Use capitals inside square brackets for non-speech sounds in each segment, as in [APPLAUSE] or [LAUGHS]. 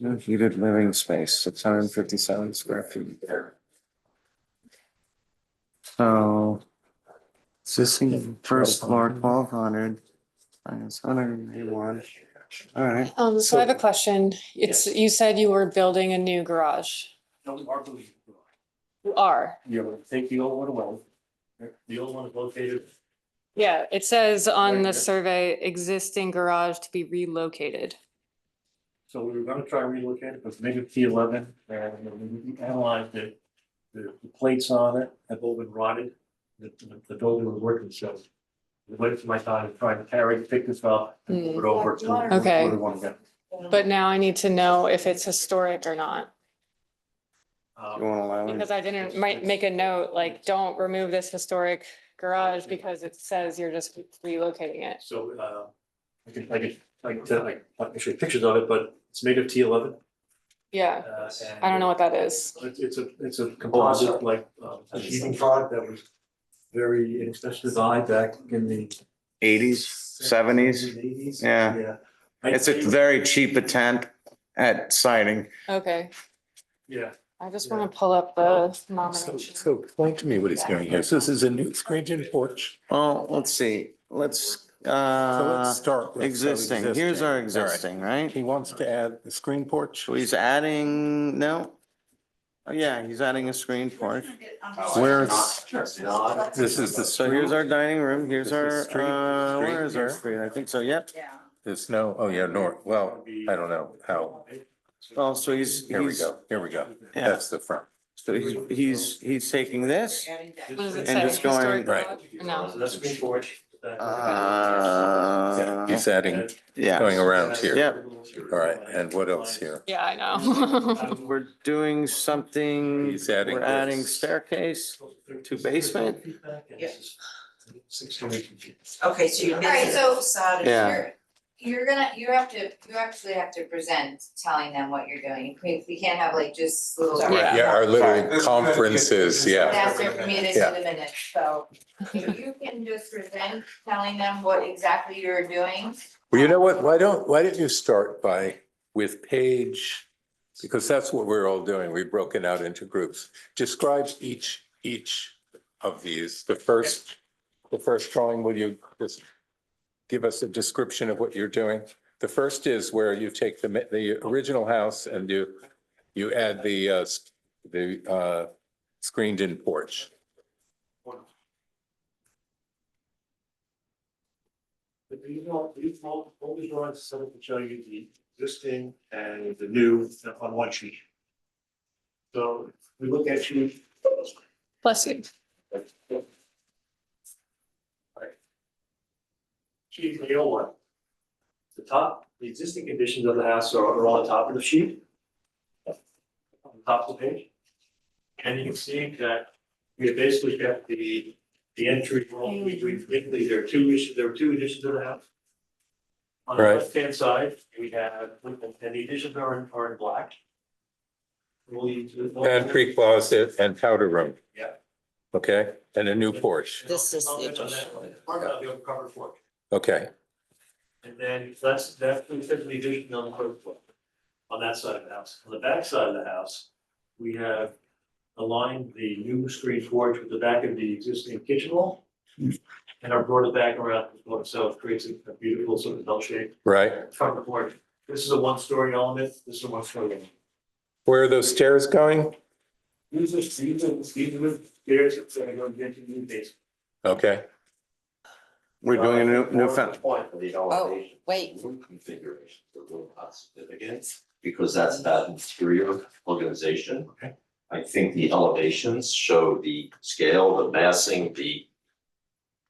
No heated living space, six hundred and fifty-seven square feet. So. Existing first floor, twelve hundred, minus hundred and eighty-one, all right. Um, so I have a question. It's, you said you were building a new garage. No, we are moving. You are. You know, take the old one away. The old one is located. Yeah, it says on Right, the yeah. survey, existing garage to be relocated. So we were gonna try and relocate it, but maybe P eleven, and we analyzed it. The the plates on it have all been rotted, the, the- the building was working, so. We went to my time and tried to carry, pick this up, and Hmm. put it over to. where Okay. we wanna go. But now I need to know if it's historic or not, You Um, wanna allow it? because I didn't, might make a note, like, don't remove this historic garage because it says you're just relocating it. So, uh, I can, I can, I can, tell- I can show you pictures of it, but it's made of T eleven. Yeah, I don't know what that is. Uh, It's, it's a, it's Oh, a composite like, um, a sheeting product that was very inexpensive design back in the. Eighties, seventies, Eighties. Yeah. it's a very cheap attempt at siding. Okay, Yeah, I just want to pull up the nomination. So explain to me what he's doing here. So this is a new screened-in porch. Well, let's see, let's, So uh, let's start with. existing, here's our All right. existing, right? He wants to add the screen porch. So he's adding, no? Oh, yeah, he's adding a screen porch. Where's, Oh, this is the. So here's our dining room, here's This is our, street- uh, where street is our here. street? I think so, yep. There's no, oh yeah, north. Well, I don't know how. Oh, so he's, Here we he's, go. Here we go. yeah, That's the front. so he's, he's, he's taking this. What does it And say? just going- Historic Right. garage? No. Uh, That's green porch. Yeah, Uh, He's adding, yeah, going around here. Yep. all right, and what else [LAUGHS] here? Yeah, I [LAUGHS] know. we're doing something. He's adding We're adding this. staircase. To basement? Six hundred feet. Okay, so you're. All right, so- Yeah. You're- You're gonna, you have to, you actually have to present telling them what you're doing. We, we can't have like just little. Right, Yeah, our little Sorry. conferences, yeah. That's their minutes Yeah. in the minutes, so if you can just present telling them what exactly you're doing. Well, you know what? Why don't, why don't you start by with page? Because that's what we're all doing. We've broken out into groups. Describe each, each of these. The first, the first drawing, will you just give us a description of what you're doing? The first is where you take the, ma- the original house and you, you add the, uh, s- the, uh, screened-in porch. But these all, these all, all these drawings set up to show you the existing and the new on one sheet. So we look at sheet. Bless you. Sheet three oh one. The top, the existing conditions of the house are are on the top of the sheet. On the top of the page. And you can see that we have basically got the, the entry, wall. we, we, basically, there are two issues, there are two additions to the house. On the Right. left-hand side, we have, and the additions are in, are in black. We'll use. Pantry closet and powder room. Yeah. Okay, and a new porch. This is the Comment on that one. Part of the covered floor. Okay. And then that's, that's specifically addition on the third floor, on that side of the house. On the back side of the house, we have aligned the new screen porch with the back of the existing kitchen wall. And are brought it back around the floor, so it creates a a beautiful sort of bell shape Right. front porch. This is a one-story element, this is a one-story element. Where are those stairs going? These are, these are, these are the stairs that's gonna go into the new basement. Okay, We're doing a new, new fence. Point of Oh. the elevation, Wait, room configuration, the room not significant, because that's about interior organization. Okay. I think the elevations show the scale, the massing, the,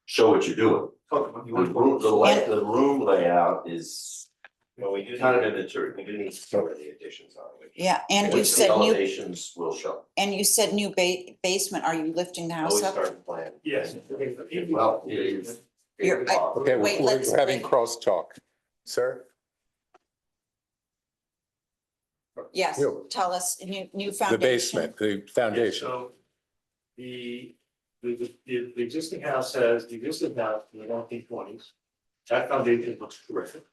show what you're doing. Talk about The you want to- room, the la- the room layout is, you know, we do kind of immaterial, we do need to cover the additions on it. yeah, and you Which the said new, Elevations will show, and you said new ba- basement, are you lifting the house always up? start to plan. Yes. Well, it is. You're- I- okay, Wait, we're we're let's- having wait. crosstalk. Sir? Yes, Yeah. tell us, new, new The foundation. basement, the foundation. So the, the, the, the existing house has, the existing house in the nineteen twenties, that foundation looks terrific.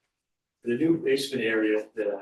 The new basement area that